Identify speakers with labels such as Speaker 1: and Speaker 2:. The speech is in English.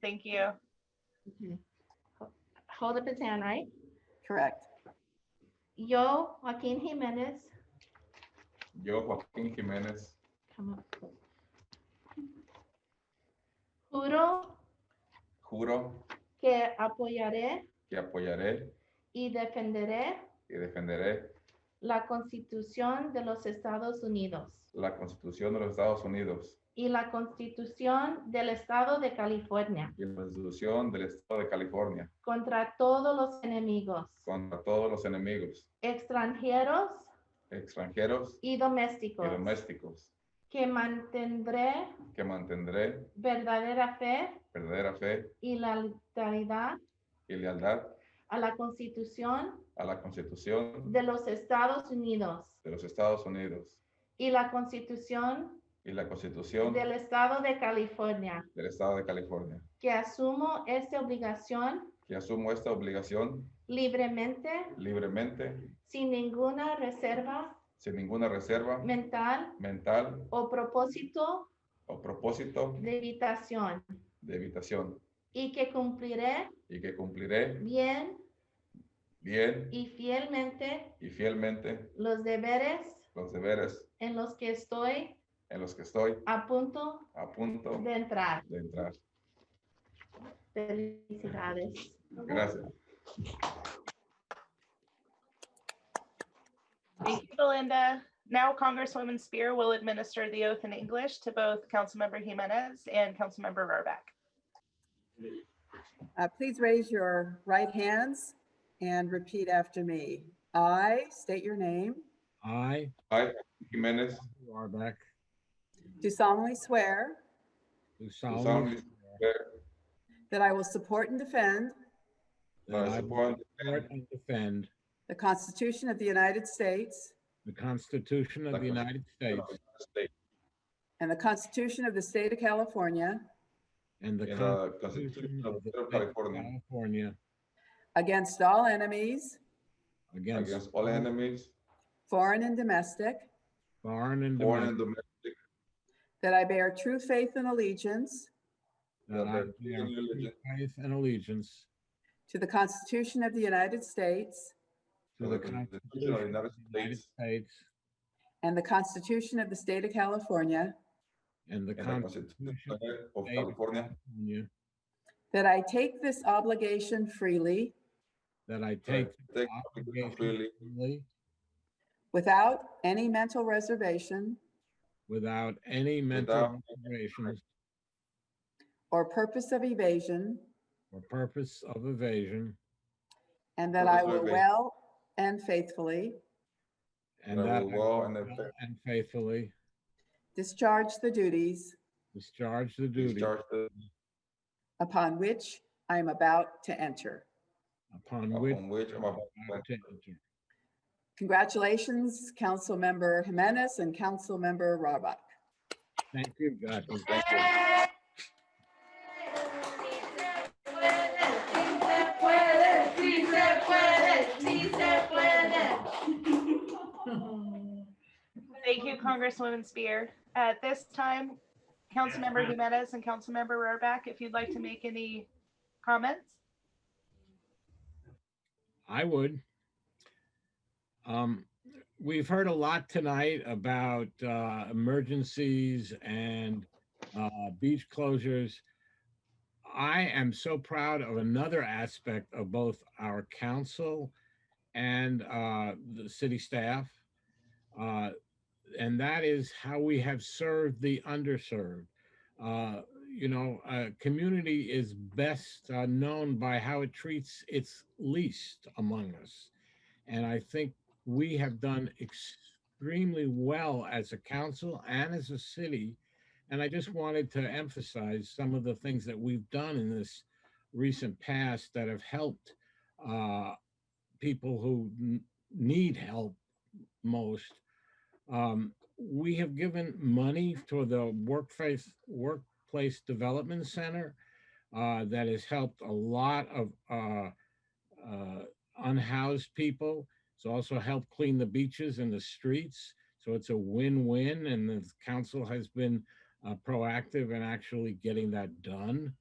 Speaker 1: Thank you.
Speaker 2: Okay. Ho- Hold up his hand, right?
Speaker 3: Correct.
Speaker 2: Yo, Joaquin Jimenez,
Speaker 4: Yo, Joaquín Jiménez,
Speaker 2: come up. close. Juro
Speaker 4: juro
Speaker 2: que apoyaré
Speaker 4: que apoyaré
Speaker 2: y defenderé
Speaker 4: y defenderé
Speaker 2: la Constitución de los Estados Unidos
Speaker 4: la Constitución de los Estados Unidos
Speaker 2: y la Constitución del Estado de California
Speaker 4: y la Constitución del Estado de California
Speaker 2: contra todos los enemigos
Speaker 4: contra todos los enemigos
Speaker 2: extranjeros
Speaker 4: extranjeros
Speaker 2: y
Speaker 4: y
Speaker 2: domésticos
Speaker 4: domésticos,
Speaker 2: que mantendré
Speaker 4: que mantendré
Speaker 2: verdadera fe
Speaker 4: verdadera fe
Speaker 2: y la lealtad
Speaker 4: y lealtad
Speaker 2: a la Constitución
Speaker 4: a la Constitución
Speaker 2: de los Estados Unidos
Speaker 4: de los Estados Unidos
Speaker 2: y la Constitución
Speaker 4: y la Constitución
Speaker 2: del Estado de California,
Speaker 4: del Estado de California,
Speaker 2: que asumo esta obligación
Speaker 4: que asumo esta obligación
Speaker 2: libremente,
Speaker 4: libremente,
Speaker 2: sin ninguna reserva
Speaker 4: sin ninguna reserva
Speaker 2: mental
Speaker 4: mental
Speaker 2: o propósito
Speaker 4: o propósito
Speaker 2: de evitación,
Speaker 4: de evitación,
Speaker 2: y que cumpliré
Speaker 4: y que cumpliré
Speaker 2: bien
Speaker 4: bien
Speaker 2: y fielmente
Speaker 4: y fielmente
Speaker 2: los deberes
Speaker 4: los deberes
Speaker 2: en los que estoy
Speaker 4: en los que estoy
Speaker 2: a punto
Speaker 4: a punto
Speaker 2: de entrar.
Speaker 4: de entrar.
Speaker 2: Felicidades.
Speaker 4: Gracias.
Speaker 1: Thank you, Belinda. Now Congresswoman Spear will administer the oath in English to both Councilmember Jimenez and Councilmember Rohrbach.
Speaker 3: Uh, Please raise your right hands and repeat after me. I state your name,
Speaker 5: I,
Speaker 4: I, Jiménez,
Speaker 5: Warbeck,
Speaker 3: do solemnly swear
Speaker 5: do
Speaker 4: solemnly
Speaker 5: solemnly swear
Speaker 4: swear
Speaker 3: that I will support and defend
Speaker 4: that I
Speaker 5: that
Speaker 4: support
Speaker 5: I will support and defend
Speaker 3: the Constitution of the United States
Speaker 5: the Constitution of the United
Speaker 4: and
Speaker 5: States
Speaker 4: defend the state
Speaker 3: and the Constitution of the State of California
Speaker 5: and the
Speaker 4: and the
Speaker 5: Constitution of the
Speaker 4: State of
Speaker 5: State of
Speaker 4: California
Speaker 5: California
Speaker 3: against all enemies,
Speaker 5: against
Speaker 4: against all enemies,
Speaker 3: foreign and domestic,
Speaker 5: foreign and
Speaker 4: foreign and
Speaker 5: domestic,
Speaker 4: domestic,
Speaker 3: that I bear true faith and allegiance
Speaker 5: that I
Speaker 4: that I
Speaker 5: bear
Speaker 4: bear
Speaker 5: true faith and allegiance
Speaker 3: to the Constitution of the United States
Speaker 5: to the Constitution of the United States
Speaker 3: and the Constitution of the State of California,
Speaker 5: and the
Speaker 4: and the
Speaker 5: Constitution
Speaker 4: Constitution
Speaker 5: of
Speaker 4: of
Speaker 5: the State of
Speaker 4: California,
Speaker 5: California,
Speaker 3: that I take this obligation freely
Speaker 5: that I take
Speaker 4: take
Speaker 5: the
Speaker 4: obligation
Speaker 5: obligation
Speaker 4: freely
Speaker 5: freely
Speaker 3: without any mental reservation
Speaker 5: without any mental
Speaker 4: Without-
Speaker 5: reservations
Speaker 3: or purpose of evasion,
Speaker 5: or purpose of evasion,
Speaker 3: and that
Speaker 4: Purpose
Speaker 3: I
Speaker 4: of
Speaker 3: will
Speaker 4: evasion.
Speaker 3: well and faithfully
Speaker 5: and
Speaker 4: That I
Speaker 5: that I
Speaker 4: will well
Speaker 5: will
Speaker 4: and
Speaker 5: well
Speaker 4: effect-
Speaker 5: and faithfully
Speaker 3: discharge the duties
Speaker 5: discharge the duty
Speaker 4: discharge the
Speaker 3: upon which I am about to enter.
Speaker 5: upon which
Speaker 4: upon which I'm about
Speaker 5: I
Speaker 4: to
Speaker 5: am
Speaker 4: enter.
Speaker 5: to enter.
Speaker 3: Congratulations, Councilmember Jimenez and Councilmember Rohrbach.
Speaker 5: Thank you, Jackie.
Speaker 1: Thank you, Congresswoman Spear. At this time, Councilmember Jimenez and Councilmember Rohrbach, if you'd like to make any comments.
Speaker 5: I would. Um, we've heard a lot tonight about uh, emergencies and uh, beach closures. I am so proud of another aspect of both our council and uh, the city staff. Uh, and that is how we have served the underserved. Uh, you know, a community is best uh, known by how it treats its least among us. And I think we have done extremely well as a council and as a city. And I just wanted to emphasize some of the things that we've done in this recent past that have helped uh, people who n- need help most. Um, we have given money to the workplace work Place Development Center uh, that has helped a lot of uh, uh, unhoused people. It's also helped clean the beaches and the streets. So it's a win-win, and the council has been uh, proactive in actually getting that done.